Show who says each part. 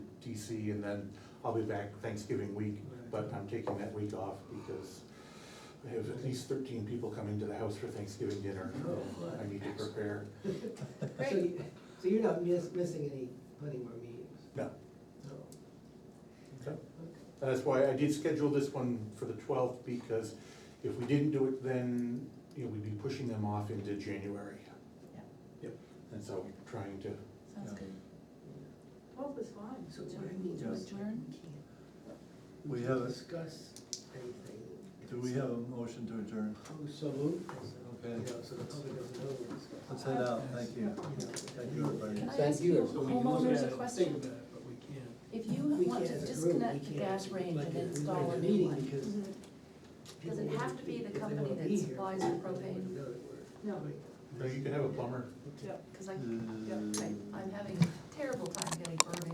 Speaker 1: DC and then I'll be back Thanksgiving week, but I'm taking that week off because I have at least thirteen people coming to the house for Thanksgiving dinner.
Speaker 2: Oh, fun.
Speaker 1: I need to prepare.
Speaker 2: So you- So you're not miss, missing any, plenty more meetings?
Speaker 1: No,
Speaker 2: No.
Speaker 1: okay.
Speaker 2: Okay.
Speaker 1: That's why I did schedule this one for the twelfth, because if we didn't do it, then, you know, we'd be pushing them off into January.
Speaker 3: Yeah.
Speaker 1: Yep, and so trying to,
Speaker 3: Sounds
Speaker 4: Yeah.
Speaker 3: good.
Speaker 5: Twelve is fine.
Speaker 2: So what do you mean?
Speaker 4: Yeah.
Speaker 3: Adjourn?
Speaker 2: We can't
Speaker 4: We have, a-
Speaker 2: Discuss anything.
Speaker 4: do we have a motion to adjourn?
Speaker 2: Oh, so moved. So,
Speaker 4: Okay.
Speaker 2: You know, so the public doesn't know we're discussing.
Speaker 4: Let's head out, thank you.
Speaker 2: You know,
Speaker 4: Thank you, everybody.
Speaker 3: Can I
Speaker 6: Thank
Speaker 3: ask
Speaker 6: you.
Speaker 3: you
Speaker 6: So
Speaker 3: homeowners a question?
Speaker 2: But we can't.
Speaker 3: If you
Speaker 2: We
Speaker 3: want
Speaker 2: can't
Speaker 3: to
Speaker 2: as a group,
Speaker 3: disconnect
Speaker 2: we
Speaker 3: the
Speaker 2: can't.
Speaker 3: gas range
Speaker 2: Like,
Speaker 3: and
Speaker 2: it's
Speaker 3: install
Speaker 2: like
Speaker 3: a
Speaker 2: a
Speaker 3: new
Speaker 2: meeting
Speaker 3: one,
Speaker 2: because
Speaker 3: Does it
Speaker 2: people
Speaker 3: have
Speaker 2: wouldn't
Speaker 3: to be the
Speaker 2: if they
Speaker 3: company
Speaker 2: wanna
Speaker 3: that
Speaker 2: be here,
Speaker 3: supplies the
Speaker 2: they wouldn't
Speaker 3: propane?
Speaker 2: know that we're
Speaker 5: No.
Speaker 2: doing
Speaker 1: you know, you could have a plumber.
Speaker 2: it.
Speaker 5: Yep.
Speaker 3: because I,
Speaker 4: Uh,
Speaker 3: I- I'm having a terrible time getting burning